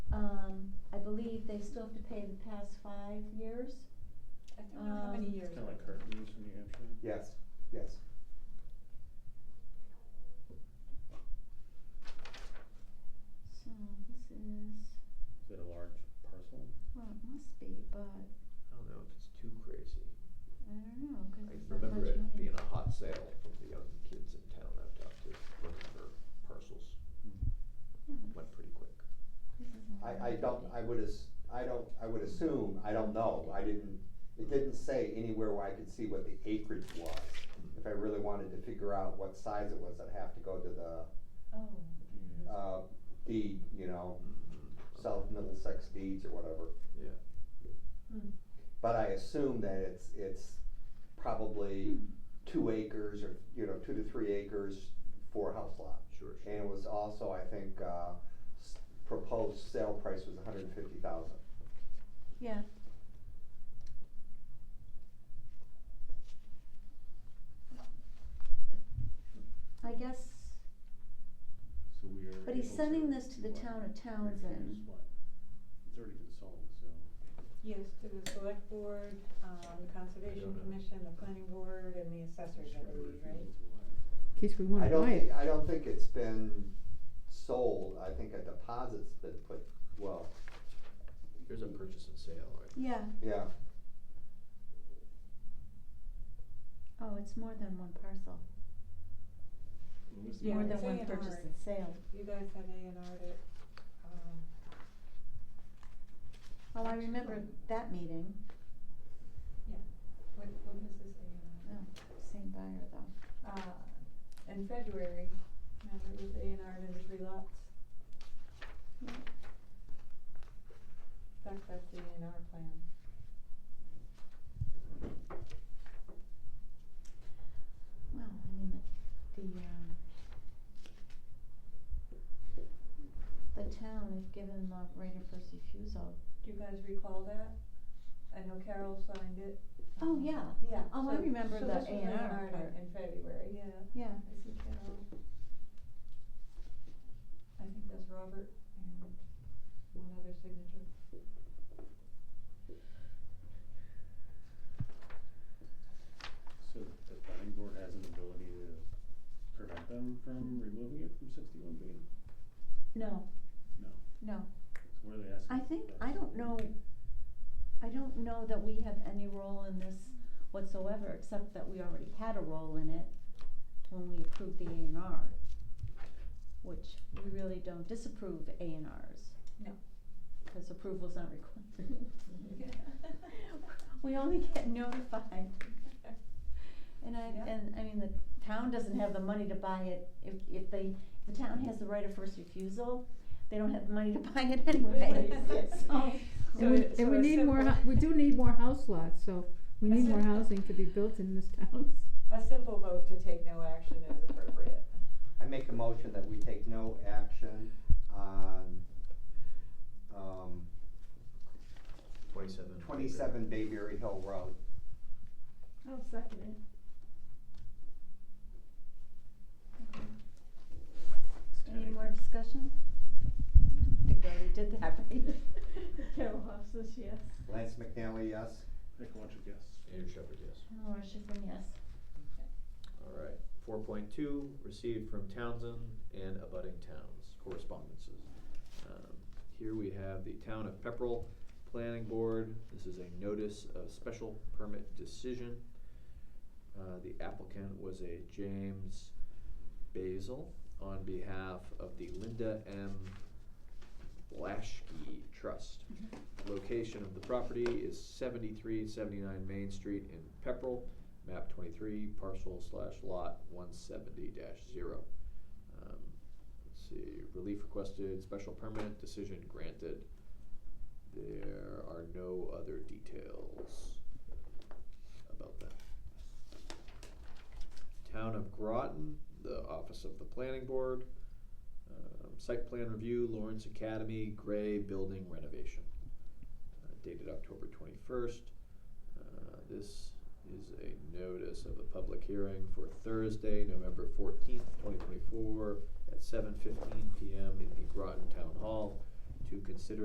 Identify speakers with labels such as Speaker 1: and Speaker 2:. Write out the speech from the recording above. Speaker 1: Um, believe they still have to pay the past five years.
Speaker 2: I don't know how many
Speaker 1: Um,
Speaker 2: years.
Speaker 3: It's kinda like current use in New Hampshire.
Speaker 4: Yes, yes.
Speaker 1: So this is,
Speaker 3: Is it a large parcel?
Speaker 1: well, it must be, but
Speaker 5: I don't know if it's too crazy.
Speaker 1: I don't know, cause
Speaker 5: I
Speaker 1: it's not much money.
Speaker 5: remember it being a hot sale from the young kids in town I've talked to, looking for parcels,
Speaker 1: Yeah, but
Speaker 5: went pretty quick.
Speaker 1: this isn't
Speaker 4: I, I
Speaker 1: really
Speaker 4: don't,
Speaker 1: big.
Speaker 4: I would as, I don't, I would assume, I don't know, I didn't, it didn't say anywhere where I could see what the acreage was. If I really wanted to figure out what size it was, I'd have to go to the,
Speaker 2: Oh,
Speaker 3: Yeah.
Speaker 4: uh, deed, you know,
Speaker 5: Mhm.
Speaker 4: South Middlesex deeds or whatever.
Speaker 5: Yeah.
Speaker 2: hmm,
Speaker 4: But I assume that it's, it's probably
Speaker 1: Hmm.
Speaker 4: two acres or, you know, two to three acres for a house lot.
Speaker 5: Sure, sure.
Speaker 4: And it was also, I think, uh, s- proposed sale price was hundred and fifty thousand.
Speaker 1: Yeah. I guess,
Speaker 3: So we are.
Speaker 1: but he's
Speaker 3: able
Speaker 1: sending this to the
Speaker 3: what?
Speaker 1: town of Townsend.
Speaker 3: Refuse what? It's already been sold, so.
Speaker 2: yes, to the select board, um, the conservation
Speaker 5: know.
Speaker 2: commission, the planning board, and the assessors, I believe, right?
Speaker 6: in case we wanna
Speaker 4: I don't
Speaker 6: buy it.
Speaker 4: think, I don't think it's been sold, I think a deposit's been put, well,
Speaker 5: There's a purchase and sale, right?
Speaker 1: yeah,
Speaker 4: yeah,
Speaker 1: oh, it's more than one parcel,
Speaker 2: Yeah,
Speaker 1: more
Speaker 2: it's
Speaker 1: than one
Speaker 2: A&R.
Speaker 1: purchase and sale.
Speaker 2: You guys had A and R that, um,
Speaker 1: Oh, I remember that meeting,
Speaker 2: what, what was this A
Speaker 1: oh,
Speaker 2: and R?
Speaker 1: same buyer though,
Speaker 2: Uh, in February, remember, it was A and R into three lots.
Speaker 1: Yeah.
Speaker 2: That's, that's the A and R plan.
Speaker 1: well, I mean, the, the, um, the town is given the right of first refusal
Speaker 2: Do you guys recall that? I know Carol signed it.
Speaker 1: Oh,
Speaker 2: um,
Speaker 1: yeah.
Speaker 2: Yeah.
Speaker 1: Oh, I
Speaker 2: so-
Speaker 1: remember
Speaker 2: so
Speaker 1: the
Speaker 2: this was
Speaker 1: A&R
Speaker 2: A&R'd in-
Speaker 1: part.
Speaker 2: In February, yeah.
Speaker 1: Yeah.
Speaker 2: I see Carol. I think that's Robert and one other signature.
Speaker 3: So the planning board has an ability to prevent them from removing it from sixty-one B?
Speaker 1: No,
Speaker 3: No.
Speaker 1: no,
Speaker 3: So what are they asking?
Speaker 1: I think,
Speaker 3: for?
Speaker 1: I don't know, I don't know that we have any role in this whatsoever, except that we already had a role in it when we approved the A and R, which we really don't disapprove A and Rs.
Speaker 2: No.
Speaker 1: Cause approval's not required. We only get notified. And I,
Speaker 2: Yeah.
Speaker 1: and I mean, the town doesn't have the money to buy it, if, if they, the town has the right of first refusal, they don't have the money to buy it anyway, so.
Speaker 2: So
Speaker 6: And we,
Speaker 2: it- so
Speaker 6: and we
Speaker 2: it's
Speaker 6: need more,
Speaker 2: simple.
Speaker 6: hou- we do need more house lots, so we
Speaker 2: A
Speaker 6: need more
Speaker 2: simple-
Speaker 6: housing to be built in this town.
Speaker 2: A simple vote to take no action is appropriate.
Speaker 4: I make a motion that we take no action on, um,
Speaker 5: Twenty-seven.
Speaker 4: twenty-seven Bayberry Hill Road.
Speaker 1: I'll second it. Okay,
Speaker 3: It's ten
Speaker 1: any more
Speaker 3: acres.
Speaker 1: discussion? I think we already did that, right? Carol Hoff says yes.
Speaker 4: Lance McNally, yes?
Speaker 3: Take a bunch of guess.
Speaker 5: Andrew Shepherd, yes.
Speaker 1: Laura Schiffern, yes.
Speaker 5: All right, four point two, received from Townsend and abutting towns, correspondences. Um, Here we have the town of Pepperell Planning Board, this is a notice of special permit decision. Uh, the applicant was a James Basil on behalf of the Linda M. Blaschke Trust. Location of the property is seventy-three seventy-nine Main Street in Pepperell map twenty-three, parcel slash lot one seventy dash zero. Um, Let's see, relief requested, special permit, decision granted. There are no other details about that. Town of Groton, the office of the planning board. Um, site plan review, Lawrence Academy, gray building renovation. Uh, Dated October twenty-first. Uh, This is a notice of a public hearing for Thursday, November fourteenth, twenty twenty-four, at seven fifteen PM in the Groton Town Hall to consider